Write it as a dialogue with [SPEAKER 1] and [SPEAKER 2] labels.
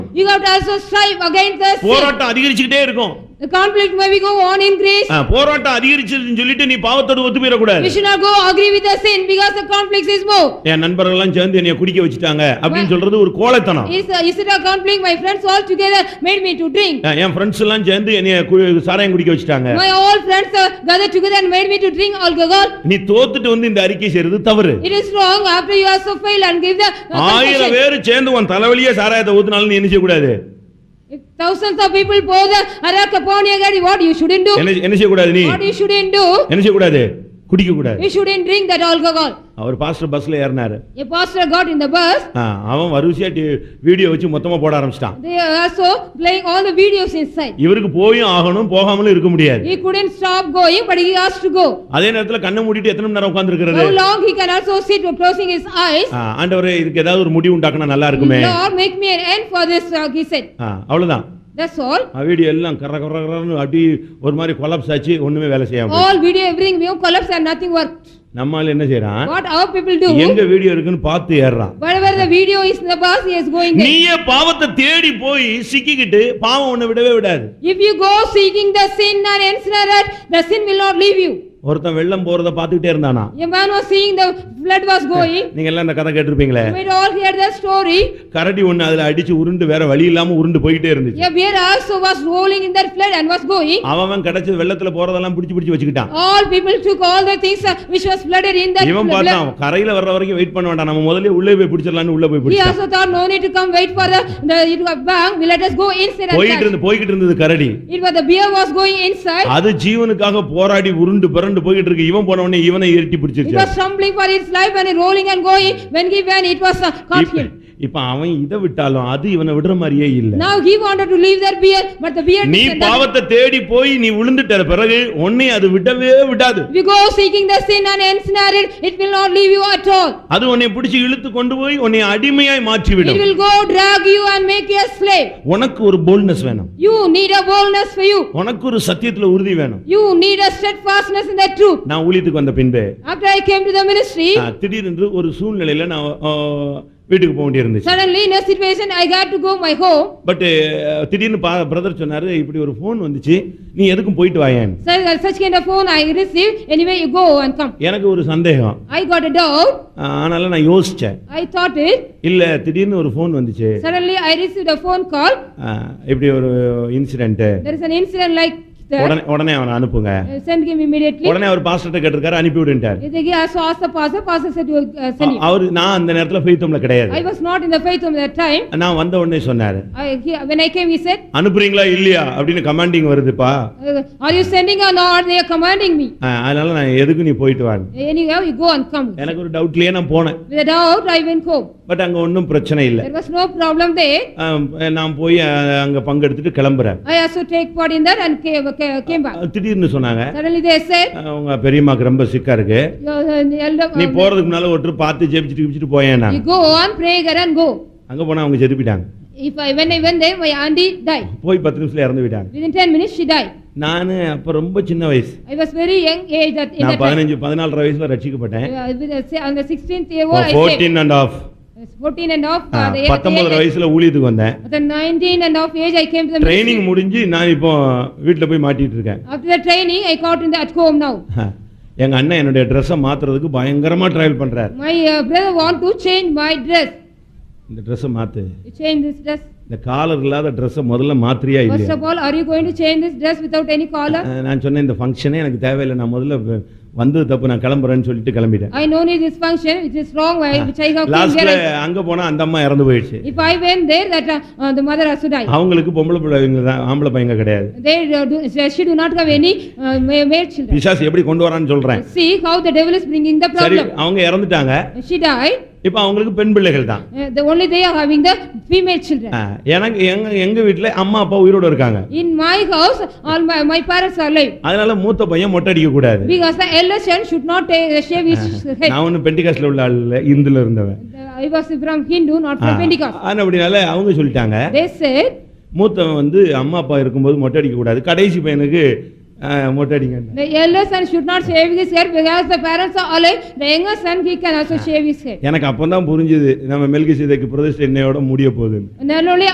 [SPEAKER 1] You have to also strive against the sin.
[SPEAKER 2] போராட்டம் அதிகரிச்சுக்கிட்டே இருக்கும்
[SPEAKER 1] The conflict may be go on increase.
[SPEAKER 2] ஆ, போராட்டம் அதிகரிச்சதுன்னு சொல்லிட்டு நீ பாவத்தோடு ஒத்து போயிடக்கூடாது
[SPEAKER 1] We should not go agree with the sin because the conflict is more.
[SPEAKER 2] என் நண்பர்கள் எல்லாம் சேர்ந்து என்னைய குடிக்க வச்சுட்டாங்க அப்படின்னு சொல்றது ஒரு கோழைத்தனம்
[SPEAKER 1] Is, uh, is it a conflict? My friends all together made me to drink.
[SPEAKER 2] ஆ, என் ஃப்ரெண்ட்ஸ் எல்லாம் சேர்ந்து என்னைய கு- சாராயம் குடிக்க வச்சுட்டாங்க
[SPEAKER 1] My all friends uh, gathered together and made me to drink alcohol.
[SPEAKER 2] நீ தோத்துட்டு வந்து இந்த அறிக்கை செய்யறது தவறு
[SPEAKER 1] It is wrong after you also fail and give the uh,
[SPEAKER 2] ஆயிரம்
[SPEAKER 1] confession.
[SPEAKER 2] பேர் சேர்ந்து உன் தலைவலியே சாராயத்தை ஊத்துனாலும் நீ என்ன செய்யக்கூடாது
[SPEAKER 1] If thousands of people pour the arak upon your head, what you shouldn't do?
[SPEAKER 2] என்ன என்ன செய்யக்கூடாது நீ
[SPEAKER 1] What you shouldn't do?
[SPEAKER 2] என்ன செய்யக்கூடாது குடிக்க கூடாது
[SPEAKER 1] You shouldn't drink that alcohol.
[SPEAKER 2] அவர் பாஸ்டர் பஸ்ல ஏறினாரு
[SPEAKER 1] A pastor got in the bus.
[SPEAKER 2] ஆ, அவன் வரிசையா டி- வீடியோ வச்சு மொத்தமா போட ஆரம்பிச்சிட்டான்
[SPEAKER 1] They are also playing all the videos inside.
[SPEAKER 2] இவருக்கு போயும் ஆகணும் போகாமலும் இருக்க முடியாது
[SPEAKER 1] He couldn't stop going, but he has to go.
[SPEAKER 2] அதே நேரத்துல கண்ணை மூடிட்டு எத்தனை மணி நேரம் உட்கார்ந்திருக்கிறாரு
[SPEAKER 1] How long he can also sit with closing his eyes?
[SPEAKER 2] ஆ, ஆண்டவரே இதுக்கு ஏதாவது ஒரு முடிவு உண்டாக்குனா நல்லா இருக்குமே
[SPEAKER 1] Lord, make me an end for this, uh, he said.
[SPEAKER 2] ஆ, அவ்வளவுதான்
[SPEAKER 1] That's all.
[SPEAKER 2] ஆ, வீடியோ எல்லாம் கர கர கரன்னு அப்படி ஒரு மாதிரி கொலாப்ஸ் ஆச்சு ஒண்ணுமே வேலை செய்யாம
[SPEAKER 1] All video, everything, new collapse and nothing worked.
[SPEAKER 2] நம்மால என்ன செய்யறான்
[SPEAKER 1] What our people do,
[SPEAKER 2] எங்க வீடியோ இருக்குன்னு பார்த்து ஏறுறான்
[SPEAKER 1] whatever the video is in the bus, he is going there.
[SPEAKER 2] நீயே பாவத்தை தேடி போய் சிக்கிக்கிட்டு பாவம் உன்னை விடவே விடாது
[SPEAKER 1] If you go seeking the sin and ensnared, the sin will not leave you.
[SPEAKER 2] ஒருத்தன் வெள்ளம் போறத பார்த்துக்கிட்டே இருந்தானா
[SPEAKER 1] A man was seeing the flood was going.
[SPEAKER 2] நீங்க எல்லாம் இந்த கதை கேட்டிருப்பீங்களே
[SPEAKER 1] We all hear the story.
[SPEAKER 2] கரடி ஒண்ணு அதுல அடிச்சு உருண்டு வேற வழி இல்லாம உருண்டு போயிட்டே இருந்துச்சு
[SPEAKER 1] A bear also was rolling in that flood and was going.
[SPEAKER 2] அவன் அவன் கிடைச்சது வெள்ளத்துல போறதெல்லாம் பிடிச்சு பிடிச்சு வச்சுக்கிட்டான்
[SPEAKER 1] All people took all the things uh, which was flooded in that
[SPEAKER 2] இவன்
[SPEAKER 1] flood.
[SPEAKER 2] பார்த்தான் கரையில வர்ற வரைக்கும் வெயிட் பண்ண வேண்டாம் நம்ம முதல்ல உள்ளே போய் பிடிச்சிடலாம்னு உள்ள போய்
[SPEAKER 1] He
[SPEAKER 2] பிடிச்சான்
[SPEAKER 1] also thought, no need to come wait for the, the, it was bank, we let us go inside and
[SPEAKER 2] போயிட்டு
[SPEAKER 1] catch.
[SPEAKER 2] இருந்து போய்கிட்டு இருந்தது கரடி
[SPEAKER 1] It was, the bear was going inside,
[SPEAKER 2] அது ஜீவனுக்காக போராடி உருண்டு பிறண்டு போய்கிட்டு இருக்கு இவன் போன உடனே இவனை ஏறிட்டி
[SPEAKER 1] it
[SPEAKER 2] பிடிச்சிருச்சு
[SPEAKER 1] was stumbling for its life and it rolling and going, when he went, it was uh, caught
[SPEAKER 2] இப்ப-
[SPEAKER 1] him.
[SPEAKER 2] இப்ப அவன் இதை விட்டாலும் அது இவனை விடுற மாதிரியே இல்ல
[SPEAKER 1] Now he wanted to leave that bear, but the bear
[SPEAKER 2] நீ
[SPEAKER 1] didn't.
[SPEAKER 2] பாவத்தை தேடி போய் நீ விழுந்துட்ட பிறகு உன்னை அது விடவே விடாது
[SPEAKER 1] If you go seeking the sin and ensnare it, it will not leave you at all.
[SPEAKER 2] அது உன்னை பிடிச்சு இழுத்து கொண்டு போய் உன்னை அடிமையாய்
[SPEAKER 1] It
[SPEAKER 2] மாற்றிவிடும்
[SPEAKER 1] will go drag you and make you a slave.
[SPEAKER 2] உனக்கு ஒரு போல்ட்னஸ் வேணும்
[SPEAKER 1] You need a boldness for you.
[SPEAKER 2] உனக்கு ஒரு சத்தியத்துல உறுதி வேணும்
[SPEAKER 1] You need a steadfastness in the truth.
[SPEAKER 2] நான் ஊழியத்துக்கு வந்த பின்பு
[SPEAKER 1] After I came to the ministry,
[SPEAKER 2] ஆ, திடீரென்று ஒரு சூழ்நிலையில நான் ஆ, வீட்டுக்கு போக வேண்டியிருந்துச்சு
[SPEAKER 1] suddenly in a situation I got to go my home.
[SPEAKER 2] But திடீர்னு பிரதர் சொன்னாரு இப்படி ஒரு ஃபோன் வந்துச்சு நீ எதுக்கும் போயிட்டு வாயேன்
[SPEAKER 1] Such, such kind of phone I received, anyway you go and come.
[SPEAKER 2] எனக்கு ஒரு சந்தேகம்
[SPEAKER 1] I got a doubt,
[SPEAKER 2] ஆ, ஆனாலும் நான் யோசிச்சேன்
[SPEAKER 1] I thought it,
[SPEAKER 2] இல்ல திடீர்னு ஒரு ஃபோன் வந்துச்சு
[SPEAKER 1] suddenly I received a phone call,
[SPEAKER 2] ஆ, இப்படி ஒரு incident
[SPEAKER 1] there is an incident like that,
[SPEAKER 2] உடனே உடனே அவனை அனுப்புங்க
[SPEAKER 1] I send him immediately.
[SPEAKER 2] உடனே அவர் பாஸ்டர்ட்ட கேட்டிருக்காரு அனுப்பி விடுன்ட்டார்
[SPEAKER 1] They also asked the pastor, pastor said you uh, send him.
[SPEAKER 2] அவர் நான் அந்த நேரத்துல ஃபெய்த்தம்ல கிடையாது
[SPEAKER 1] I was not in the faith at that time,
[SPEAKER 2] நான் வந்த உடனே சொன்னாரு
[SPEAKER 1] I, he- when I came he said,
[SPEAKER 2] அனுப்புறீங்களா இல்லையா அப்படின்னு கமாண்டிங் வருதுப்பா
[SPEAKER 1] uh, are you sending or not, they are commanding me.
[SPEAKER 2] ஆ, அதனால நான் எதுக்கு நீ போயிட்டு வாங்க
[SPEAKER 1] Anyhow, you go and come.
[SPEAKER 2] எனக்கு ஒரு டவுட்லயே நான் போனேன்
[SPEAKER 1] With a doubt, I went home,
[SPEAKER 2] but அங்க ஒன்றும் பிரச்சனை இல்லை
[SPEAKER 1] there was no problem there,
[SPEAKER 2] ஆ, நான் போய் ஆ, அங்க பங்கெடுத்துட்டு கிளம்புறேன்
[SPEAKER 1] I also take part in that and came, came- came
[SPEAKER 2] Ah,
[SPEAKER 1] back.
[SPEAKER 2] திடீர்னு சொன்னாங்க
[SPEAKER 1] Suddenly they said,
[SPEAKER 2] ஆ, உங்க பெரியம்மாக்கு ரொம்ப சிக்கா இருக்கு
[SPEAKER 1] "Your, uh, the elder-
[SPEAKER 2] நீ போறதுக்கு முன்னால ஒருத்தர் பார்த்து ஜெபிச்சுட்டு கிபிச்சுட்டு போயேன்
[SPEAKER 1] You
[SPEAKER 2] நான்
[SPEAKER 1] go on, pray there and go.
[SPEAKER 2] அங்க போனா அவங்க செதுப்பிட்டாங்க
[SPEAKER 1] If I, when I went there, my auntie died.
[SPEAKER 2] போய் பத்து நிமிஷத்துல இறந்து போயிட்டாங்க
[SPEAKER 1] Within ten minutes, she died.
[SPEAKER 2] நான் அப்ப ரொம்ப சின்ன வயசு
[SPEAKER 1] I was very young age that, in
[SPEAKER 2] நான்
[SPEAKER 1] that time.
[SPEAKER 2] பதினஞ்சு பதினாலரை வயசுல ரட்சிக்கப்பட்டேன்
[SPEAKER 1] Uh, with the se- On the sixteenth year
[SPEAKER 2] Oh,
[SPEAKER 1] old, I saved.
[SPEAKER 2] Fourteen and half
[SPEAKER 1] I was Fourteen and half,
[SPEAKER 2] Ah,
[SPEAKER 1] uh, the eighth
[SPEAKER 2] பத்தொன்பதரை
[SPEAKER 1] age.
[SPEAKER 2] வயசுல ஊழியத்துக்கு வந்தேன்
[SPEAKER 1] At the nineteen and half age, I came to the ministry.
[SPEAKER 2] Training முடிஞ்சு நான் இப்போ வீட்டுல போய் மாட்டிட்டு இருக்கேன்
[SPEAKER 1] After the training, I got in the, at home now.
[SPEAKER 2] எங்க அண்ணன் என்னுடைய ட்ரெஸ்ஸை மாத்துறதுக்கு பயங்கரமா டிராவல் பண்றாரு
[SPEAKER 1] My uh, brother want to change my dress.
[SPEAKER 2] இந்த ட்ரெஸ்ஸை மாத்து
[SPEAKER 1] You change this dress.
[SPEAKER 2] இந்த காலர் இல்லாத ட்ரெஸ்ஸை முதல்ல மாத்திரியா
[SPEAKER 1] First
[SPEAKER 2] இல்லையா
[SPEAKER 1] of all, are you going to change this dress without any collar?
[SPEAKER 2] அஹ் நான் சொன்னேன் இந்த ஃபங்க்ஷனே எனக்கு தேவையில்லை நான் முதல்ல வ- வந்தது தப்பு நான் கிளம்புறேன்னு சொல்லிட்டு கிளம்பிட்டேன்
[SPEAKER 1] I know this function, which is wrong, I- which I have came
[SPEAKER 2] லாஸ்ட்ல
[SPEAKER 1] here.
[SPEAKER 2] அங்க போனா அந்த அம்மா இறந்து போயிடுச்சு
[SPEAKER 1] If I went there, that uh, uh, the mother has to die.
[SPEAKER 2] அவங்களுக்கு பொம்பளை பிள்ளைங்க தான் ஆம்பளை பையங்க கிடையாது
[SPEAKER 1] They uh, do, she she do not have any uh, ma- male children.
[SPEAKER 2] பிசாசு எப்படி கொண்டு வரான்னு சொல்றேன்
[SPEAKER 1] See how the devil is bringing the
[SPEAKER 2] சரி
[SPEAKER 1] problem.
[SPEAKER 2] அவங்க இறந்துட்டாங்க
[SPEAKER 1] She died,
[SPEAKER 2] இப்போ அவங்களுக்கு பெண் பிள்ளைகள் தான்
[SPEAKER 1] uh, the only they are having the female children.
[SPEAKER 2] அஹ் எனக்கு எங்க எங்க வீட்டுல அம்மா அப்பா உயிரோட இருக்காங்க
[SPEAKER 1] In my house, all my, my parents are alive.
[SPEAKER 2] அதனால மூத்த பையன் மொட்டை அடிக்க கூடாது
[SPEAKER 1] Because the elder son should not take, shave his head.
[SPEAKER 2] நான் ஒன்றும் பெண்டிகாஸ்ல உள்ள ஆள் இல்ல இந்துல இருந்தவன்
[SPEAKER 1] I was from Hindu, not
[SPEAKER 2] ah,
[SPEAKER 1] from Pentecost.
[SPEAKER 2] ஆனா அப்படினால அவங்க சொல்லிட்டாங்க
[SPEAKER 1] They said,
[SPEAKER 2] மூத்தவன் வந்து அம்மா அப்பா இருக்கும்போது மொட்டை அடிக்க கூடாது கடைசி பையனுக்கு அஹ், மொட்டை அடிங்க
[SPEAKER 1] the elder son should not shave his hair because the parents are alive. The younger son, he can also shave his hair.
[SPEAKER 2] எனக்கு அப்பதான் புரிஞ்சுது நம்ம மெல்கி சீதைக்கு பிரதிஷ்டை என்னையோட முடிய போகுதுன்னு
[SPEAKER 1] Not only